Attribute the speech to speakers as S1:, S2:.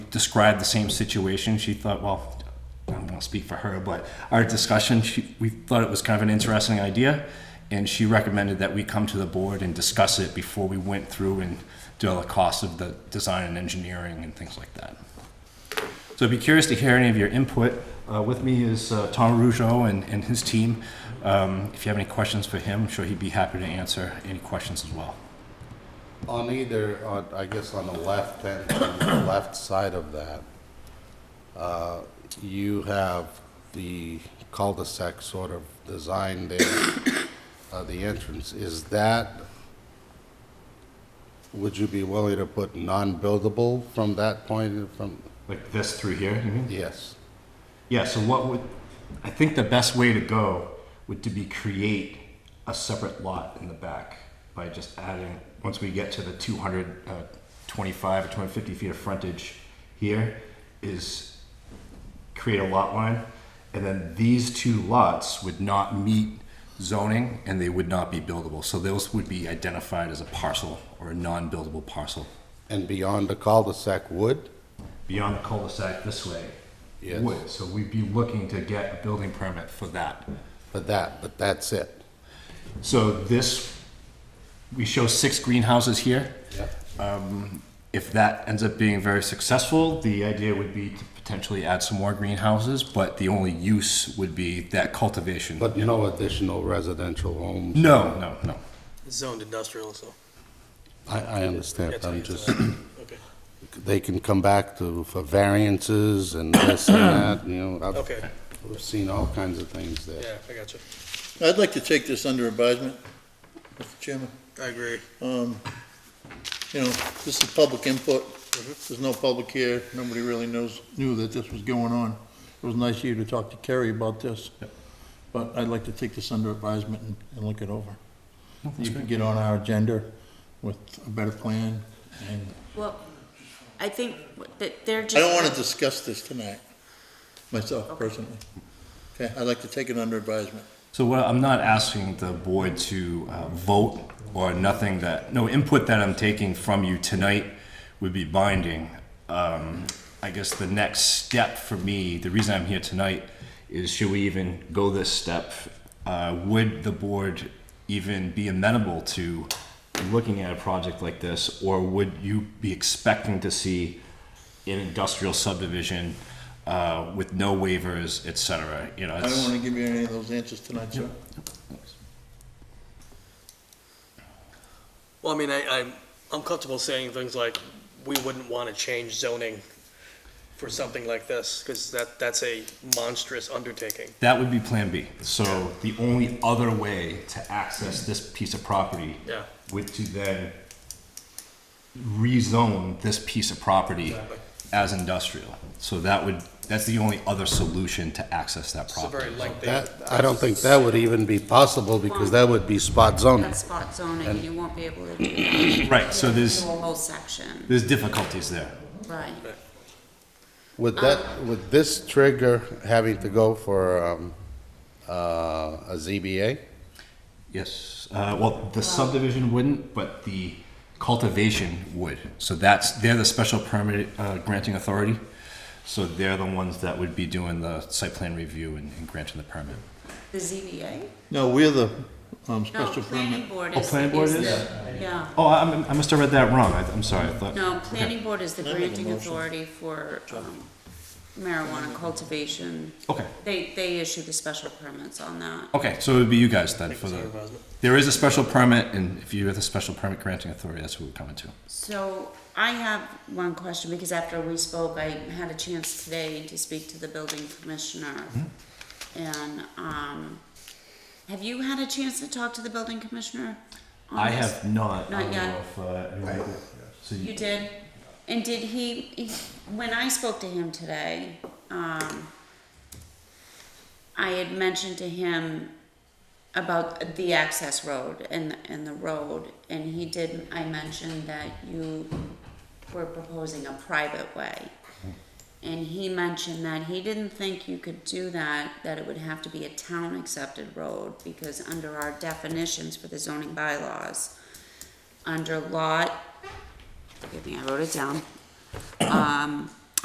S1: described the same situation. She thought, well, I don't want to speak for her, but our discussion, she, we thought it was kind of an interesting idea, and she recommended that we come to the board and discuss it before we went through and do all the costs of the design and engineering and things like that. So I'd be curious to hear any of your input. Uh, with me is uh, Tom Rougeau and, and his team. Um, if you have any questions for him, I'm sure he'd be happy to answer any questions as well.
S2: On either, on, I guess on the left hand, on the left side of that, uh, you have the cul-de-sac sort of design there, uh, the entrance. Is that, would you be willing to put non-buildable from that point, from,
S1: Like this through here, you mean?
S2: yes?
S1: Yeah, so what would, I think the best way to go would to be create a separate lot in the back by just adding, once we get to the two hundred uh, twenty-five or two hundred fifty feet of frontage here, is create a lot line, and then these two lots would not meet zoning and they would not be buildable, so those would be identified as a parcel or a non-buildable parcel.
S2: And beyond the cul-de-sac wood?
S1: Beyond the cul-de-sac this way
S2: Yes.
S1: would, so we'd be looking to get a building permit for that.
S2: But that, but that's it?
S1: So this, we show six greenhouses here. Um,
S2: Yep.
S1: If that ends up being very successful, the idea would be to potentially add some more greenhouses, but the only use would be that cultivation.
S2: But no additional residential homes?
S1: No, no, no.
S3: zoned industrial, so.
S2: I, I understand,
S3: that's what
S2: I'm
S3: you're
S2: just,
S3: saying. Okay,
S2: they can come back to, for variances and this and that, you know. I've-
S3: Okay.
S2: We've seen all kinds of things there.
S3: yeah, I got you.
S4: I'd like to take this under advisement, Mr. Chairman.
S3: I agree.
S4: Um, You know, this is public input. There's no public here. Nobody really knows, knew that this was going on. It was nice of you to talk to Kerry about this. But I'd like to take this under advisement and, and look it over. You can get on our agenda with a better plan and
S5: Well, I think that they're just.
S4: I don't want to discuss this tonight, myself personally. Okay, I'd like to take it under advisement.
S1: So what, I'm not asking the board to uh, vote or nothing that, no input that I'm taking from you tonight would be binding. Um, I guess the next step for me, the reason I'm here tonight is should we even go this step? Uh, Would the board even be amenable to looking at a project like this? Or would you be expecting to see an industrial subdivision uh, with no waivers, et cetera? You know,
S4: I don't
S1: it's-
S4: want to give you any of those answers tonight, sir.
S3: Well, I mean, I, I'm, I'm comfortable saying things like, we wouldn't want to change zoning for something like this, because that, that's a monstrous undertaking.
S1: That would be Plan B. So the only other way to access this piece of property
S3: Yeah.
S1: would to then rezone this piece of property
S3: Exactly.
S1: as industrial. So that would, that's the only other solution to access that
S3: It's a very
S1: property.
S3: lengthy.
S2: That, I don't think that would even be possible because that would be spot zoning.
S5: That spot zoning, you won't be able to do
S1: Right, so
S5: the
S1: there's,
S5: whole section,
S1: there's difficulties there.
S5: right?
S2: Would that, would this trigger having to go for, um, uh, a ZBA?
S1: Yes, uh, well, the subdivision wouldn't, but the cultivation would. So that's, they're the special permit uh, granting authority. So they're the ones that would be doing the site plan review and and granting the permit.
S5: The ZBA?
S4: No, we're the um,
S5: No,
S4: special
S5: planning
S4: permit.
S5: board
S1: Oh,
S5: is.
S1: planning board is?
S5: the- Yeah,
S1: Oh, I, I'm- I must have read that wrong. I, I'm sorry. I thought.
S5: no, planning board is the
S4: Can I make a
S5: granting
S4: motion?
S5: authority for um, marijuana cultivation.
S1: Okay.
S5: They, they issue the special permits on that.
S1: Okay, so it would be you guys then for
S3: it's
S1: the.
S3: under advisement.
S1: There is a special permit, and if you have the special permit granting authority, that's what we're coming to.
S5: So I have one question, because after we spoke, I had a chance today to speak to the building commissioner.
S1: Mm-hmm.
S5: And, um, have you had a chance to talk to the building commissioner? on
S1: I
S5: this?
S1: have not.
S5: Not
S1: I don't
S5: yet.
S1: know if, uh, anyone- so
S5: You did? And did he, he- when I spoke to him today, um, I had mentioned to him about the access road and, and the road, and he did, I mentioned that you were proposing a private way. And he mentioned that he didn't think you could do that, that it would have to be a town-accepted road, because under our definitions for the zoning bylaws, under lot forgive me, I wrote it down. Um,